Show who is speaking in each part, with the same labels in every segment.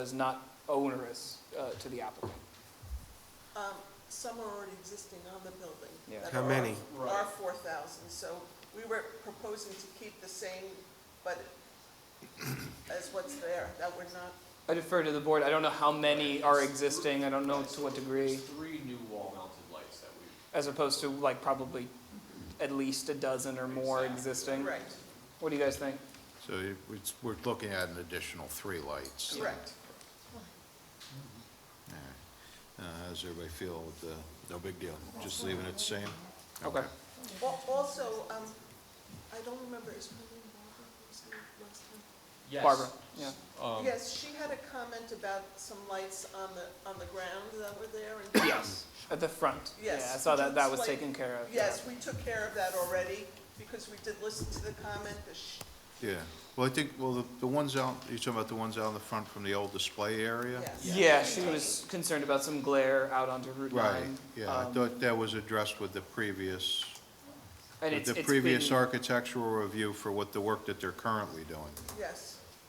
Speaker 1: is not onerous uh, to the applicant.
Speaker 2: Um, some are already existing on the building.
Speaker 1: Yeah.
Speaker 2: that
Speaker 3: How
Speaker 2: are-
Speaker 3: many?
Speaker 2: Are four thousand, so we were proposing to keep the same, but as what's there, that we're not,
Speaker 1: I defer to the board, I don't know how many are existing, I don't know to what degree,
Speaker 4: There's three new wall-mounted lights that we've.
Speaker 1: as opposed to like probably at least a dozen or more existing.
Speaker 2: right,
Speaker 1: What do you guys think?
Speaker 5: So it- it's- we're looking at an additional three lights.
Speaker 2: correct.
Speaker 5: Yeah. Uh, How's everybody feel with the, no big deal, just leaving it the same?
Speaker 1: Okay,
Speaker 2: Al- Also, um, I don't remember, is her name Barbara, who's here last time?
Speaker 4: Yes.
Speaker 1: Barbara, yeah.
Speaker 4: Um,
Speaker 2: Yes, she had a comment about some lights on the, on the ground that were there and. Yes.
Speaker 1: At the front.
Speaker 2: Yes.
Speaker 1: Yeah, I saw that, that was
Speaker 2: Just like-
Speaker 1: taken care of.
Speaker 2: Yes, we took care of that already, because we did listen to the comment, the sh-
Speaker 5: Yeah, well, I think, well, the the ones out, you're talking about the ones out in the front from the old display area?
Speaker 2: yes.
Speaker 1: Yeah, she was concerned about some glare out onto Route
Speaker 5: Right,
Speaker 1: nine.
Speaker 5: yeah, I
Speaker 1: um,
Speaker 5: thought that was addressed with the previous,
Speaker 1: And
Speaker 5: with
Speaker 1: it's,
Speaker 5: the
Speaker 1: it's
Speaker 5: previous
Speaker 1: been-
Speaker 5: architectural review for what the work that they're currently doing.
Speaker 2: Yes,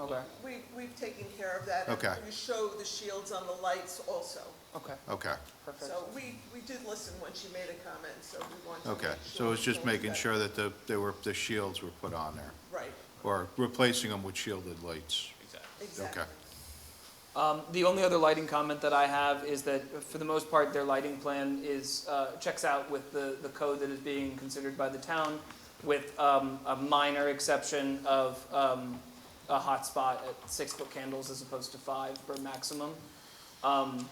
Speaker 1: Okay,
Speaker 2: we, we've taken care of that.
Speaker 5: Okay.
Speaker 2: You show the shields on the lights also.
Speaker 1: okay,
Speaker 5: Okay,
Speaker 1: perfect.
Speaker 2: So we, we did listen when she made a comment, so we want to make
Speaker 5: okay, so
Speaker 2: sure
Speaker 5: it's just
Speaker 2: we
Speaker 5: making
Speaker 2: got-
Speaker 5: sure that the, they were, the shields were put on there,
Speaker 2: Right,
Speaker 5: or replacing them with shielded lights.
Speaker 4: Exactly.
Speaker 2: exactly.
Speaker 1: Um, the only other lighting comment that I have is that, for the most part, their lighting plan is, uh, checks out with the, the code that is being considered by the town, with, um, a minor exception of, um, a hotspot at six-foot candles as opposed to five per maximum. Um,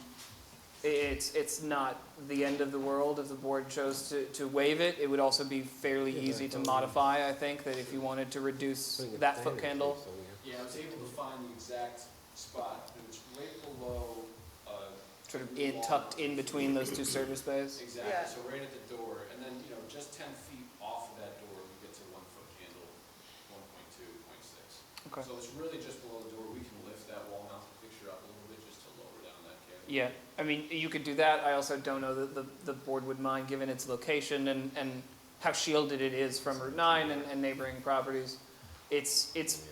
Speaker 1: i- it's, it's not the end of the world if the board chose to, to waive it. It would also be fairly easy to modify, I think, that if you wanted to reduce that foot candle.
Speaker 4: Yeah, I was able to find the exact spot, and it's right below, uh,
Speaker 1: sort of in, tucked in between those two service bays.
Speaker 2: Yeah.
Speaker 4: exactly, so right at the door, and then, you know, just ten feet off of that door, we get to one-foot candle, one point two, point six.
Speaker 1: Okay.
Speaker 4: So it's really just below the door, we can lift that wall-mounted picture up a little bit just to lower down that candle.
Speaker 1: Yeah, I mean, you could do that. I also don't know that the, the board would mind, given its location and, and how shielded it is from Route nine and, and neighboring properties. It's, it's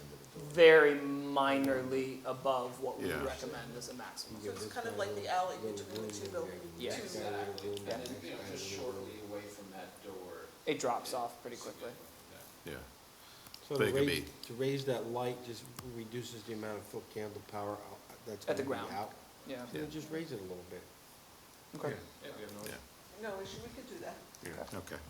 Speaker 1: very minorly above what we
Speaker 5: Yeah.
Speaker 1: recommend as a maximum.
Speaker 2: So it's kind of like the alley between the two buildings.
Speaker 1: Yeah.
Speaker 4: Exactly, and then, you know, just shortly away from that door.
Speaker 1: It drops off pretty quickly.
Speaker 4: Yeah.
Speaker 5: Yeah,
Speaker 3: So
Speaker 5: But
Speaker 3: to
Speaker 5: it could
Speaker 3: raise,
Speaker 5: be-
Speaker 3: to raise that light just reduces the amount of foot candle power out- that's
Speaker 1: At
Speaker 3: going
Speaker 1: the
Speaker 3: to be
Speaker 1: ground.
Speaker 3: out.
Speaker 1: Yeah,
Speaker 3: So just raise it a little bit.
Speaker 1: okay.
Speaker 4: Yeah, we have no.
Speaker 5: yeah,
Speaker 2: No issue, we could do that.
Speaker 5: yeah, okay.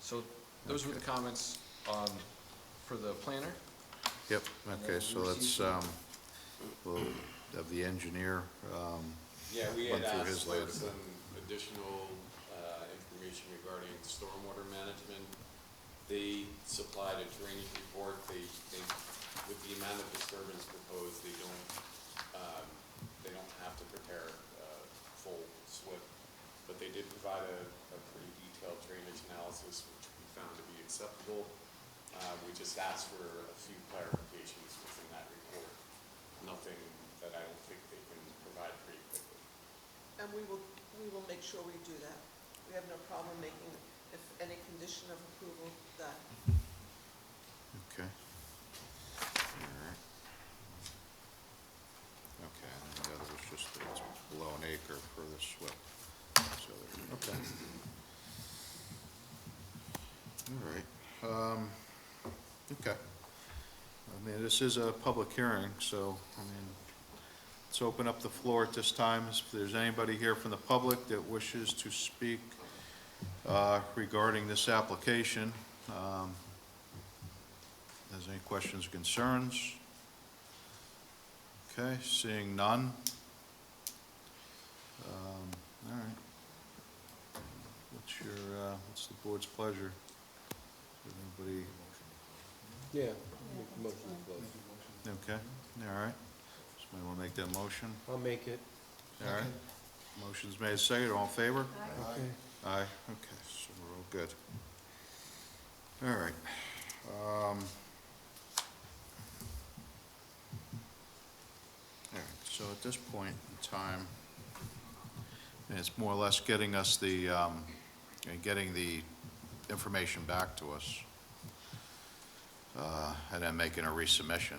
Speaker 4: So those were the comments um, for the planner.
Speaker 5: Yep, okay, so let's, um, we'll have the engineer, um,
Speaker 6: Yeah, we
Speaker 5: Went
Speaker 6: had
Speaker 5: through
Speaker 6: asked
Speaker 5: his
Speaker 6: for
Speaker 5: later.
Speaker 6: some additional uh, information regarding stormwater management. They supplied a drainage report, they, they, with the amount of disturbance proposed, they don't, um, they don't have to prepare uh, full SWIP, but they did provide a, a pretty detailed drainage analysis, which we found to be acceptable. Uh, We just asked for a few clarifications within that report, nothing that I don't think they can provide pretty quickly.
Speaker 2: And we will, we will make sure we do that. We have no problem making, if any condition of approval, that.
Speaker 5: okay. Alright. Okay, and then the other was just that it's below an acre for the SWIP, so, there- okay. All right, um, okay. I mean, this is a public hearing, so, I mean, let's open up the floor at this time. If there's anybody here from the public that wishes to speak uh, regarding this application, um, has any questions or concerns? Okay, seeing none. Um, All right. What's your, uh, what's the board's pleasure? Does Anybody,
Speaker 3: Yeah. make motion to close.
Speaker 5: okay, all right. Somebody want to make that motion?
Speaker 3: I'll make it.
Speaker 5: All right. Motion's made, second, all in favor?
Speaker 3: Okay.
Speaker 5: Aye, okay, so we're all good. All right. um, All right, so at this point in time, and it's more or less getting us the, um, and getting the information back to us. uh, and then making a resubmission.